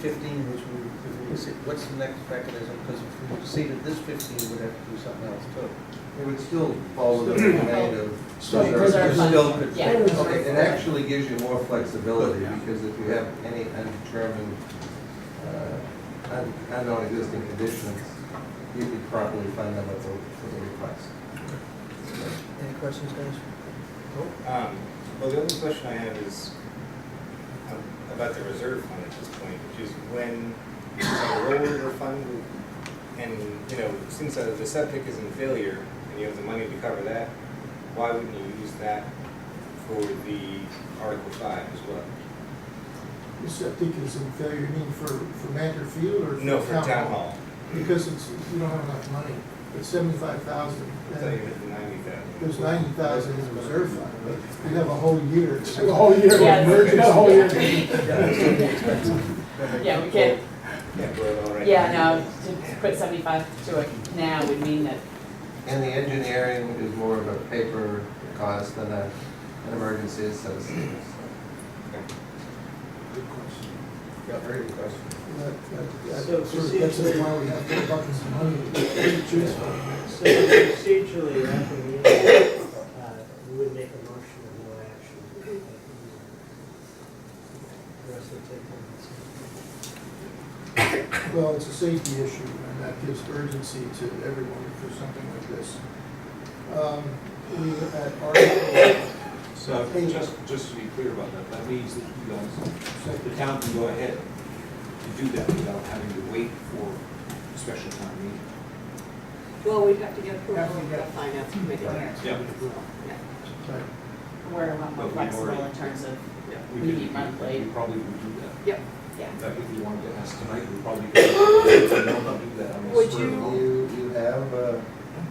fifteen, which we, if we exceed, what's the next mechanism? Because if we exceeded this fifteen, we'd have to do something else too. It would still follow the domain of. Still reserve. reserve It's fund. still could- Yeah. Okay, it actually gives you more flexibility, because if you have any undetermined, uh, un- unknown existing conditions, you could properly fund them at the, for the request. Any questions, guys? Oh, Um, Well, the only question I have is um, about the reserve fund at this point, which is when the rollover fund, and, you know, since uh, the septic is in failure, and you have the money to cover that, why wouldn't you use that for the Article Five as well? The septic is in failure, you mean for, for Mantor Field or? No, for Town Hall, Because it's, you don't have enough money, it's seventy-five thousand. I thought you meant the ninety thousand. There's ninety thousand in reserve fund, but you have a whole year. The whole year. Yes. Emergency. The whole year. That makes Yeah, we sense. can't, Yeah, we're all right. yeah, no, to put seventy-five to it now would mean that, And the engineering is more of a paper cost than a, an emergency associated. Good question. Yeah, very good question. That- that- that So, sort of- That's procedurally- why we have four buckets of money to choose from. So procedurally, after we, uh, we would make a motion of no action. The rest will take on Well, it's a safety issue, and that gives urgency to everyone for something like this. Um, We, at Article, So just, just to be clear about that, that means that you guys, the town can go ahead and do that without having to wait for a special town meeting. Well, we'd have to get approval Have to from get- the finance committee. Yeah. Yeah. right, we're a lot more But we've flexible in already- terms of, Yeah. We could- meet monthly. We probably would do that. Yep. yeah. In fact, if you wanted to ask tonight, we probably could, we don't do that on the Would spur of the moment. You, you have uh, a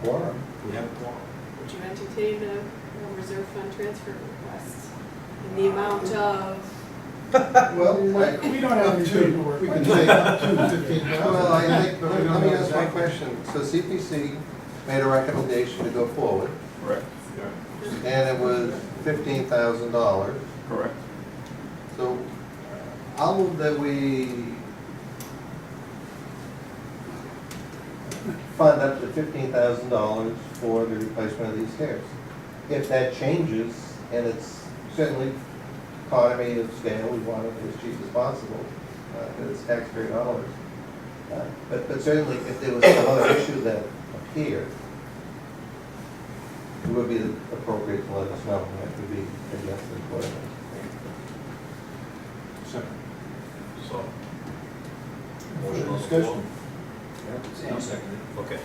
quorum. We have a quorum. Would you entertain a a reserve fund transfer request in the amount of, Well, I- We don't have any paperwork. We can say up to fifteen Well, I think, let me- let me ask my question. So CPC made a recommendation to go forward, Correct. and it was fifteen thousand dollars. Correct. So I'll move that we fund up to fifteen thousand dollars for the replacement of these stairs. If that changes, and it's certainly economy of scale, we want it as cheap as possible, uh, 'cause it's taxpayer dollars. Uh, But, but certainly if there was some other issue that appeared, it would be appropriate to let us know, and that could be adjusted accordingly. Second. So, Motion on the floor. Discussion. Sam seconded. okay.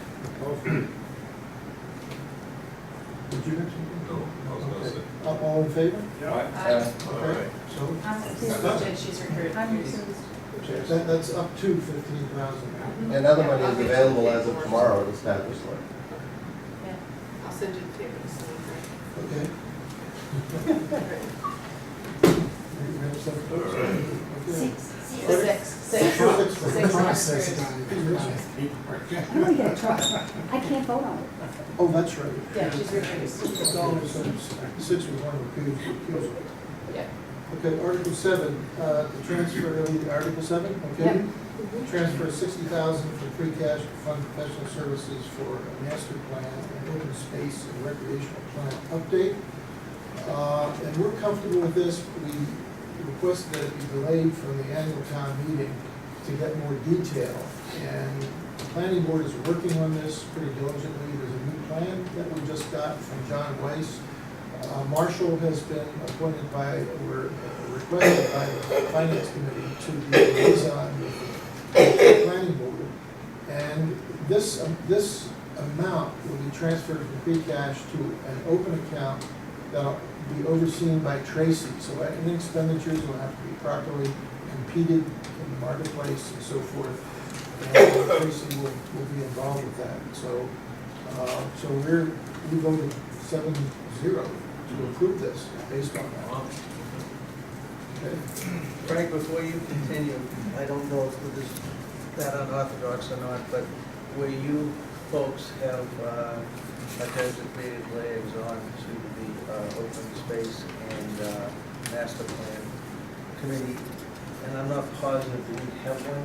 Did you mention? No, I was gonna say. All- All in favor? Aye. Uh, Okay. So I'm confused, and she's recruited. that, that's up to fifteen thousand. And other money is available as of tomorrow to establish one. I'll send you the paper to sign, right? Okay. We have seven. Okay. Six, six, Six. six recruited. I'm really gonna try. I can't vote on it. Oh, that's right. Yeah, she's It's recruited. always six, six with one recusal. Yeah. Okay, Article seven, uh, the transfer, are we to Article seven, okay? Transfer sixty thousand from free cash to fund professional services for a master plan and open space and recreational plan update. Uh, and we're comfortable with this, we request that it be delayed from the annual town meeting to get more detail. And the planning board is working on this pretty diligently, there's a new plan that we just got from John Weiss. Uh, Marshall has been appointed by, or uh, requested by the finance committee to be liaison with the planning board. And this, um, this amount will be transferred from free cash to an open account that'll be overseen by Tracy. So uh, any expenditures will have to be properly competed in the marketplace and so forth. And Tracy will, will be involved with that. So, uh, so we're, we voted seven zero to approve this based on that. Okay? Frank, before you continue, I don't know if this is that unorthodox or not, but where you folks have uh, a designated liaison to the uh, open space and uh, master plan committee, and I'm not positive we have one